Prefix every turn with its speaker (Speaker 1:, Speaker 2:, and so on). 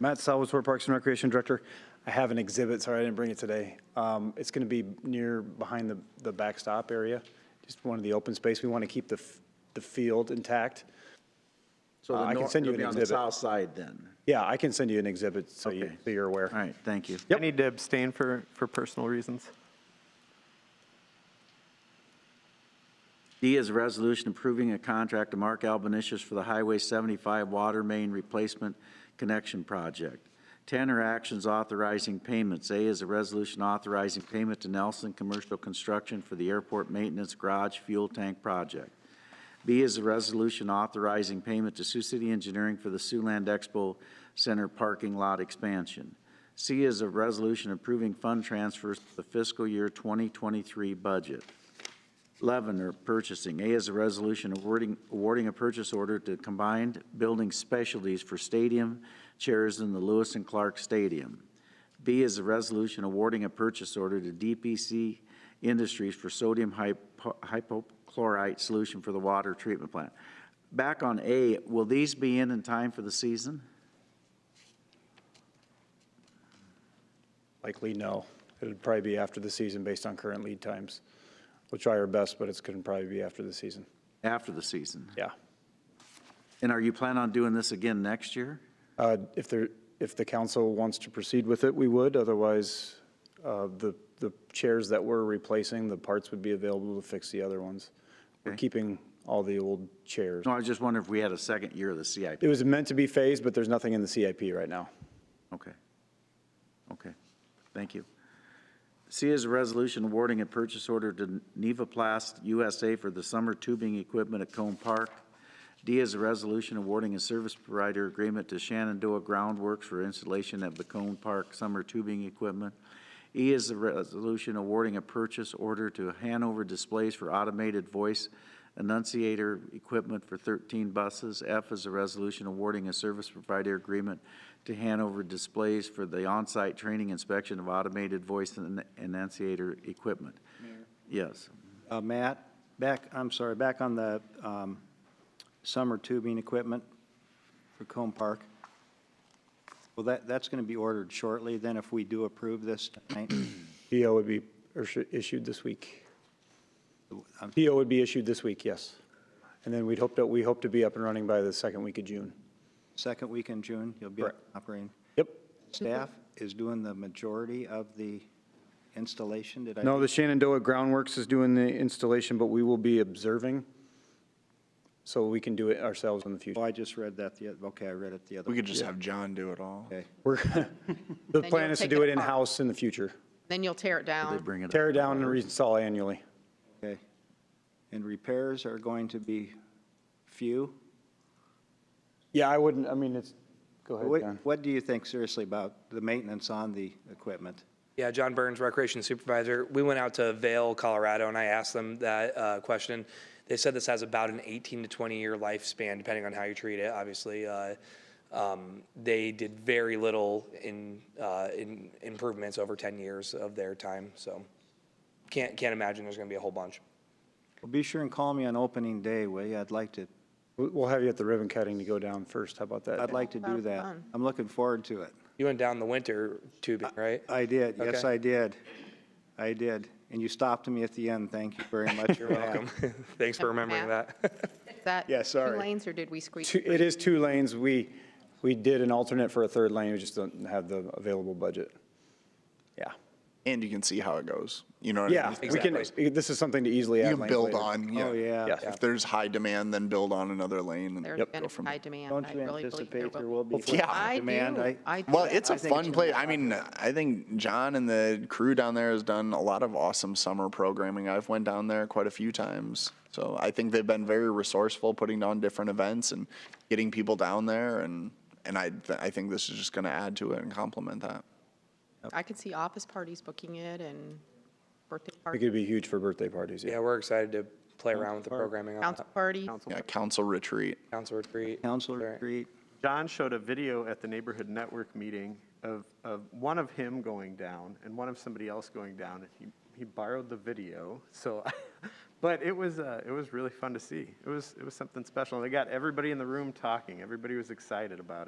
Speaker 1: Matt Salvatore, Parks and Recreation Director. I have an exhibit, sorry, I didn't bring it today. Um, It's going to be near, behind the, the backstop area, just one of the open space. We want to keep the, f- the field intact.
Speaker 2: So
Speaker 1: Uh,
Speaker 2: the
Speaker 1: I can
Speaker 2: north,
Speaker 1: send you
Speaker 2: it'll be
Speaker 1: an
Speaker 2: on the
Speaker 1: exhibit.
Speaker 2: south side then.
Speaker 1: Yeah, I can send you an exhibit so you,
Speaker 2: Okay.
Speaker 1: so you're aware.
Speaker 2: All right, thank you.
Speaker 1: Yep.
Speaker 3: I need to abstain for, for personal reasons.
Speaker 2: D is a resolution approving a contract to Mark Albanisius for the Highway 75 Water Main Replacement Connection Project. 10 are actions authorizing payments. A is a resolution authorizing payment to Nelson Commercial Construction for the airport maintenance garage fuel tank project. B is a resolution authorizing payment to Sioux City Engineering for the Siouxland Expo Center parking lot expansion. C is a resolution approving fund transfers to the fiscal year 2023 budget. 11 are purchasing. A is a resolution awarding, awarding a purchase order to Combined Building Specialties for stadium chairs in the Lewis and Clark Stadium. B is a resolution awarding a purchase order to DPC Industries for sodium hypo- hypochlorite solution for the water treatment plant. Back on A, will these be in in time for the season?
Speaker 1: Likely no. It'll probably be after the season based on current lead times. We'll try our best, but it's going to probably be after the season.
Speaker 2: After the season?
Speaker 1: Yeah.
Speaker 2: And are you planning on doing this again next year?
Speaker 1: Uh, If there, if the council wants to proceed with it, we would. Otherwise, uh, the, the chairs that we're replacing, the parts would be available to fix the other ones. We're keeping all the old chairs.
Speaker 2: No, I was just wondering if we had a second year of the CIP.
Speaker 1: It was meant to be phased, but there's nothing in the CIP right now.
Speaker 2: Okay. Okay, thank you. C is a resolution awarding a purchase order to Nevaplast USA for the summer tubing equipment at Cone Park. D is a resolution awarding a service provider agreement to Shenandoah Groundworks for installation at the Cone Park summer tubing equipment. E is a resolution awarding a purchase order to Hanover Displays for automated voice enunciator equipment for 13 buses. F is a resolution awarding a service provider agreement to Hanover Displays for the on-site training inspection of automated voice en- enunciator equipment. Yes.
Speaker 4: Uh, Matt, back, I'm sorry, back on the um, summer tubing equipment for Combe Park. Well, that, that's going to be ordered shortly, then if we do approve this tonight.
Speaker 1: PO would be issu- issued this week.
Speaker 4: Um,
Speaker 1: PO would be issued this week, yes. And then we'd hope that, we hope to be up and running by the second week of June.
Speaker 4: Second week in June, you'll be
Speaker 1: Correct.
Speaker 4: operating.
Speaker 1: Yep.
Speaker 4: Staff is doing the majority of the installation, did I?
Speaker 1: No, the Shenandoah Groundworks is doing the installation, but we will be observing, so we can do it ourselves in the future.
Speaker 4: Oh, I just read that, the oth- okay, I read it the other.
Speaker 5: We
Speaker 4: way.
Speaker 5: could just have John do it all.
Speaker 4: Okay.
Speaker 1: We're, the
Speaker 6: you'll
Speaker 1: plan is to
Speaker 6: take
Speaker 1: do
Speaker 6: it
Speaker 1: it
Speaker 6: apart.
Speaker 1: in-house in the future.
Speaker 6: Then you'll tear it
Speaker 2: They
Speaker 6: down.
Speaker 2: bring it up.
Speaker 1: Tear it down and reinstall annually.
Speaker 4: Okay. And repairs are going to be few?
Speaker 1: Yeah, I wouldn't, I mean, it's, go ahead,
Speaker 4: What,
Speaker 1: John.
Speaker 4: what do you think seriously about the maintenance on the equipment?
Speaker 7: Yeah, John Burns, Recreation Supervisor. We went out to Vail, Colorado, and I asked them that uh, question. They said this has about an 18 to 20 year lifespan, depending on how you treat it, obviously. Uh, um, They did very little in, uh, in improvements over 10 years of their time, so can't, can't imagine there's going to be a whole bunch.
Speaker 4: Well, be sure and call me on opening day, will you? I'd like to,
Speaker 1: We- We'll have you at the ribbon cutting to go down first, how about that?
Speaker 4: I'd like to do that. I'm looking forward to it.
Speaker 7: You went down the winter tubing, right?
Speaker 4: I did, yes,
Speaker 7: Okay.
Speaker 4: I did. I did. And you stopped me at the end, thank you very much.
Speaker 7: You're welcome. Um, Thanks for remembering that.
Speaker 6: Is that
Speaker 4: Yeah,
Speaker 6: two
Speaker 4: sorry.
Speaker 6: lanes, or did we squeeze?
Speaker 1: Two- It is two lanes. We, we did an alternate for a third lane, we just don't have the available budget. Yeah.
Speaker 5: And you can see how it goes. You know what I
Speaker 1: Yeah,
Speaker 5: mean?
Speaker 1: we can, this is something to easily add
Speaker 5: You can
Speaker 1: lanes
Speaker 5: build
Speaker 1: later.
Speaker 5: on. Yeah.
Speaker 4: Oh, yeah.
Speaker 1: Yeah.
Speaker 5: If there's high demand, then build on another lane and
Speaker 6: There's
Speaker 5: go
Speaker 6: going to
Speaker 5: from
Speaker 6: be high
Speaker 5: there.
Speaker 6: demand.
Speaker 4: Don't
Speaker 6: I
Speaker 4: you
Speaker 6: really believe
Speaker 4: anticipate there will be?
Speaker 5: Yeah.
Speaker 6: I do,
Speaker 4: Demand, I-
Speaker 6: I do.
Speaker 5: Well, it's
Speaker 6: a
Speaker 5: a
Speaker 4: think
Speaker 5: fun
Speaker 4: it's
Speaker 5: place. I mean, I think John and the crew down there has done a lot of awesome summer programming. I've went down there quite a few times. So I think they've been very resourceful putting on different events and getting people down there and and I th- I think this is just going to add to it and complement that.
Speaker 6: I could see office parties booking it and birthday
Speaker 1: It
Speaker 6: parties,
Speaker 1: could be huge for birthday parties, yeah.
Speaker 7: Yeah, we're excited to play around with the programming on
Speaker 6: council
Speaker 7: that.
Speaker 6: parties.
Speaker 3: Council.
Speaker 5: Yeah, council retreat.
Speaker 7: Council retreat.
Speaker 4: Council
Speaker 7: Sorry.
Speaker 4: retreat.
Speaker 3: John showed a video at the neighborhood network meeting of, of one of him going down and one of somebody else going down. and He, he borrowed the video, so, but it was, uh, it was really fun to see. It was, it was something special. They got everybody in the room talking. Everybody was excited about it.